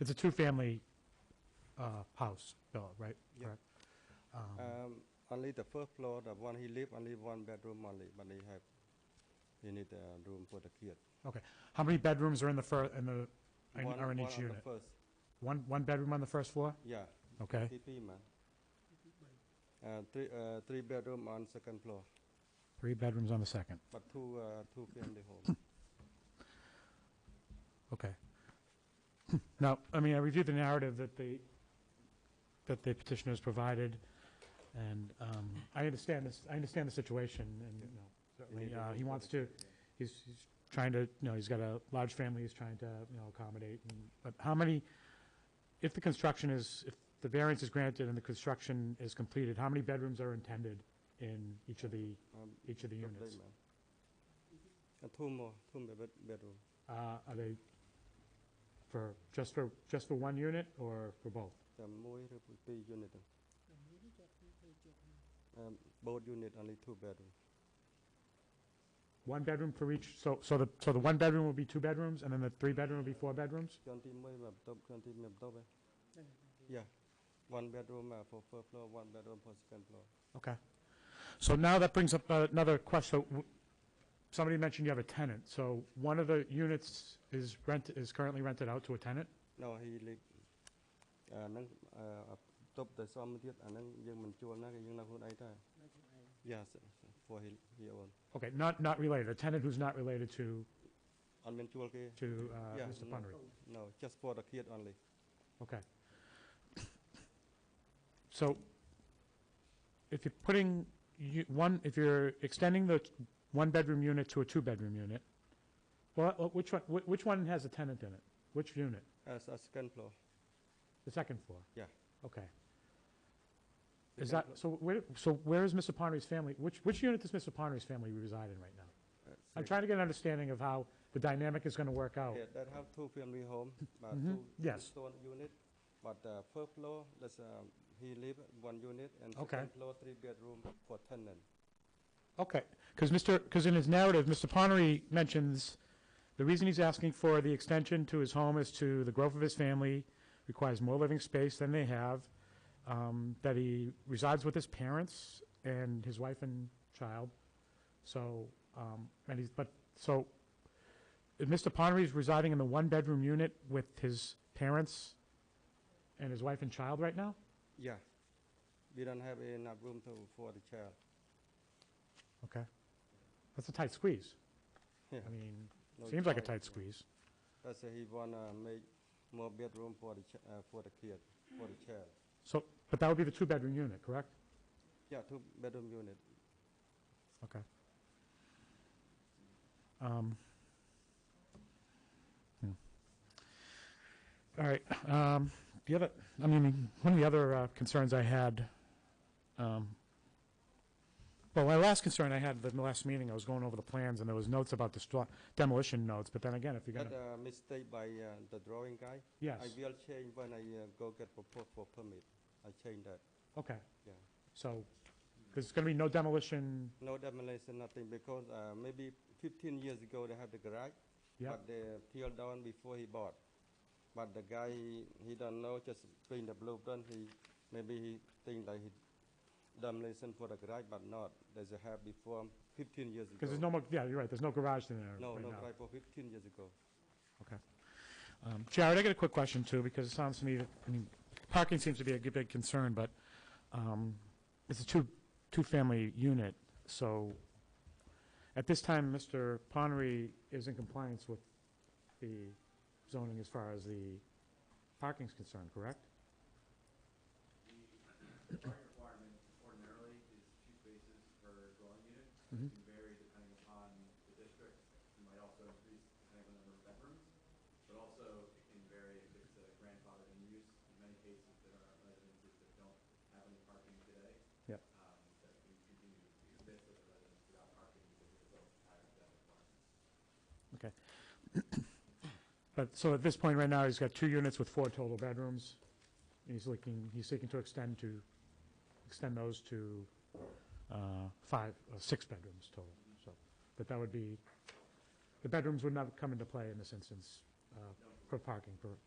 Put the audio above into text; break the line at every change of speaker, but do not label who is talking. It's a two-family uh, house, Bill, right?
Yeah.
Correct. Um,
Um, only the first floor, the one he live, only one bedroom only, but he have, he need a room for the kid.
Okay. How many bedrooms are in the fir, in the, in-
One-
are in
one
each
on the
unit?
First,
One, one bedroom on the first floor?
yeah,
Okay.
TP man. Uh, three, uh, three bedroom on second floor,
Three bedrooms on the second.
but two, uh, two family home.
Okay. Now, I mean, I reviewed the narrative that the, that the petitioners provided, and um, I understand this, I understand the situation, and, you know,
He
certainly,
need a
uh,
room
he
for
wants
the
to,
kid, yeah.
he's, he's trying to, you know, he's got a large family, he's trying to, you know, accommodate, and- but how many, if the construction is, if the variance is granted and the construction is completed, how many bedrooms are intended in each of the,
Um,
each of the
double
units?
man. Uh, two more, two bed, bedroom,
Uh, Are they for, just for, just for one unit or for both?
the more, three unit. Um, both unit only two bedroom,
One bedroom for each, so, so the, so the one bedroom will be two bedrooms, and then the three bedroom will be four bedrooms?
twenty mới mà top, twenty mà top ấy. Yeah, one bedroom uh, for first floor, one bedroom for second floor.
Okay. So now that brings up uh, another question. W- Somebody mentioned you have a tenant, so one of the units is rent, is currently rented out to a tenant?
No, he live. À, nâng à, top the some tiết à nâng dương mình chua nó cái dương nào hôm ấy ta. Yes, for he he own.
Okay, not, not related, a tenant who's not related to,
On mình chua kia.
to uh,
Yeah,
Mr.
no.
Pundry?
No, just for the kid only.
Okay. So if you're putting, you, one, if you're extending the one-bedroom unit to a two-bedroom unit, well, uh, which one, whi- which one has a tenant in it? Which unit?
As a second floor.
The second floor?
Yeah.
Okay.
Second
Is that, so
floor-
where, so where is Mr. Ponry's family, which, which unit does Mr. Ponry's family reside in right now?
uh,
I'm
second-
trying to get an understanding of how the dynamic is going to work out.
Yeah, that have two family home, but
Mhm,
two two
yes.
stone unit. But uh, first floor, that's um, he live one unit and
Okay.
second floor three bedroom for tenant.
Okay, because Mr., because in his narrative, Mr. Ponnery mentions the reason he's asking for the extension to his home is to the growth of his family, requires more living space than they have, um, that he resides with his parents and his wife and child. So, um, and he's, but, so, if Mr. Ponnery's residing in the one-bedroom unit with his parents and his wife and child right now?
Yeah. We don't have enough room to for the child.
Okay. That's a tight squeeze.
Yeah.
I mean,
no
seems like a
choice,
tight
yeah.
squeeze.
That's why he wanna make more bedroom for the, ch- uh, for the kid, for the child.
So, but that would be the two-bedroom unit, correct?
Yeah, two bedroom unit.
Okay. Um, hmm. All right, um, the other, I mean, one of the other uh, concerns I had, um, well, my last concern I had at the last meeting, I was going over the plans, and there was notes about destro- demolition notes, but then again, if you're
That
gonna,
uh, mistake by uh, the drawing guy.
yes,
I will change when I uh, go get proposal for permit. I change that,
okay,
yeah.
so, there's gonna be no demolition,
No demolition, nothing, because uh, maybe fifteen years ago, they had the garage.
yeah,
But they peeled down before he bought. But the guy, he- he don't know, just bring the blueprint, he, maybe he think like he demolition for the garage, but not. There's a have before fifteen years ago.
because there's no more, yeah, you're right, there's no garage in there
No,
right
no
now.
garage for fifteen years ago.
Um, Jared, I got a quick question too, because it sounds to me, that- I mean, parking seems to be a g- big concern, but um, it's a two, two-family unit, so at this time, Mr. Ponery is in compliance with the zoning as far as the parking's concerned, correct?
The parking requirement ordinarily is two spaces per dwelling unit.
Mhm.
It can vary depending upon the district. It might also increase depending on the number of bedrooms. But also, it can vary if it's a grandfathered in use. In many cases, there are residences that don't have any parking today.
Yep.
um, That can continue to exist as a residence without parking because it's built prior to that requirement.
But, so at this point right now, he's got two units with four total bedrooms. and He's looking, he's seeking to extend to, extend those to uh, five, uh, six bedrooms total, so. But that would be, the bedrooms would not come into play in this instance uh, for parking, for